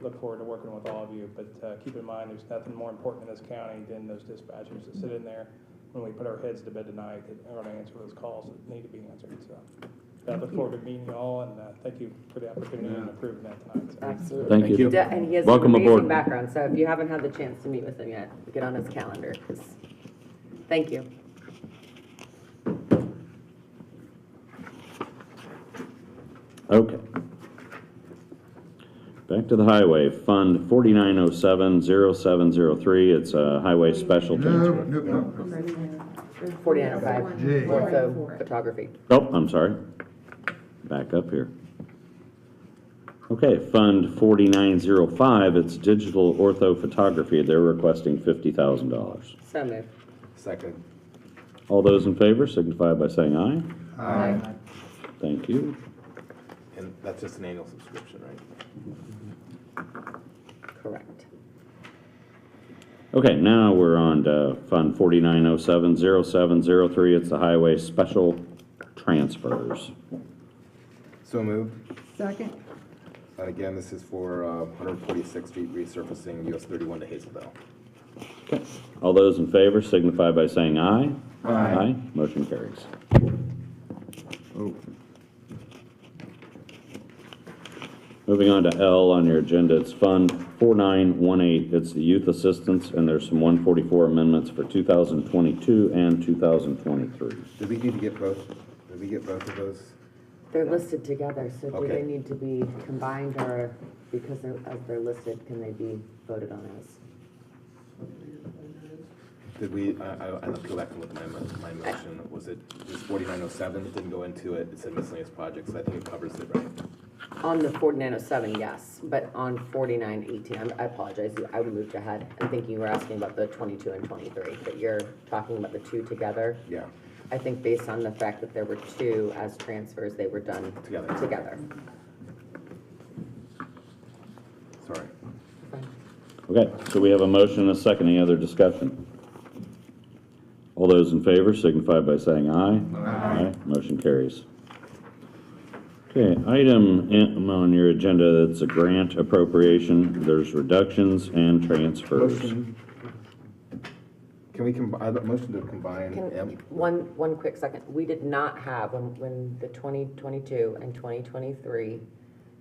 look forward to working with all of you, but uh, keep in mind, there's nothing more important in this county than those dispatchers that sit in there when we put our heads to bed tonight that are going to answer those calls that need to be answered, so. I look forward to meeting you all, and uh, thank you for the opportunity and approving that tonight. so. Absolutely. Thank you. De- And he has an Welcome amazing aboard. background, so if you haven't had the chance to meet with him yet, get on his calendar, 'cause- thank you. Okay. Back to the highway, Fund 49070703, it's a highway special No, transfer. no, no. Forty-nine oh five, Jay. ortho photography. Oh, I'm sorry. Back up here. Okay, Fund 4905, it's digital orthophotography, they're requesting $50,000. So moved. Second. All those in favor signify by saying aye. Aye. Thank you. And that's just an annual subscription, right? Correct. Okay, now we're on to Fund 49070703, it's the highway special transfers. So moved. Second, And again, this is for uh, 146th Street resurfacing US 31 to Hazelville. All those in favor signify by saying aye. Aye. Motion carries. Moving on to L on your agenda, it's Fund 4918. It's the youth assistance, and there's some 144 amendments for 2022 and 2023. Did we need to get both? Did we get both of those? They're listed together, so do they Okay. need to be combined or because they're, as they're listed, can they be voted on as? Did we, I, I- I'll have to go back and look at my, mo- my motion. Was it just 4907? It didn't go into it. It said miscellaneous projects. I think it covers it, right? On the forty-nine oh seven, yes, but on forty-nine eighteen, I'm- I apologize, I moved ahead. I'm thinking you were asking about the twenty-two and twenty-three, but you're talking about the two together. Yeah. I think based on the fact that there were two as transfers, they were done Together. together. Sorry. Okay, so we have a motion and a second. Any other discussion? All those in favor signify by saying aye. Aye. Motion carries. Okay, item M on your agenda, that's a grant appropriation. There's reductions and transfers. Motion. Can we combine, motion to combine Can, M? one, one quick second, we did not have, when, when the twenty twenty-two and twenty twenty-three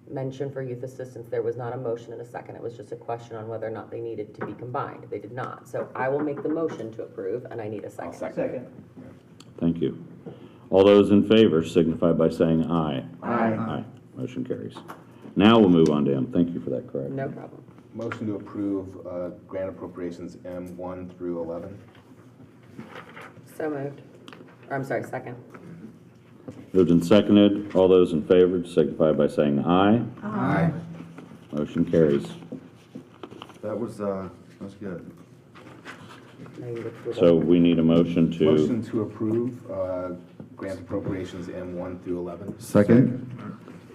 mentioned for youth assistance, there was not a motion and a second, it was just a question on whether or not they needed to be combined, they did not. So I will make the motion to approve, and I need a I'll second. second it. Thank you. All those in favor signify by saying aye. Aye. Aye. Motion carries. Now we'll move on to M. Thank you for that correction. No problem. Motion to approve uh, grant appropriations M1 through 11. So moved, or I'm sorry, second. Moved and seconded. All those in favor signify by saying aye. Aye. Motion carries. That was, uh, that's good. Now you look through the- So we need a motion to, Motion to approve uh, grant appropriations M1 through 11. Second?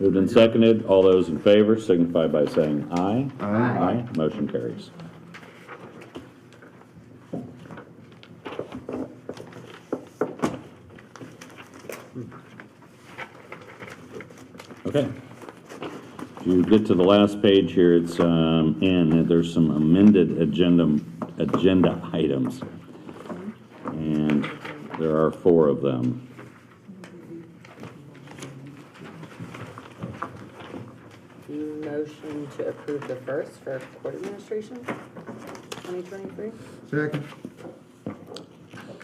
moved and seconded, all those in favor signify by saying aye. Aye. Aye, motion carries. Okay. If you get to the last page here, it's, um, and there's some amended agenda, agenda items. And there are four of them. Motion to approve the first for court administration, twenty twenty-three? Second?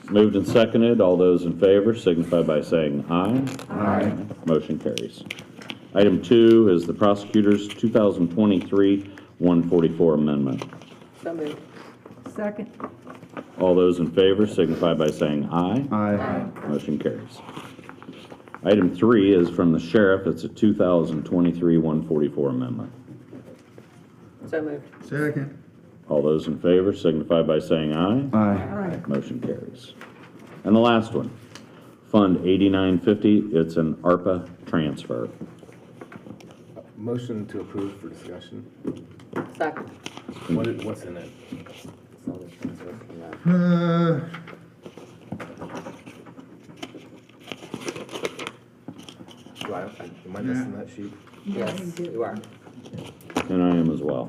Moved and seconded, all those in favor signify by saying aye. Aye. Motion carries. Item two is the prosecutor's 2023-144 amendment. So moved. second, All those in favor signify by saying aye. Aye. Motion carries. Item three is from the sheriff, it's a 2023-144 amendment. So moved. Second? All those in favor signify by saying aye. Aye. right, Motion carries. And the last one, Fund 8950, it's an ARPA transfer. Motion to approve for discussion. Second. What it- What's in it? So the transfer from the- Uh, Do I, I- am I missing that sheet? Yes, you are. And I am as well.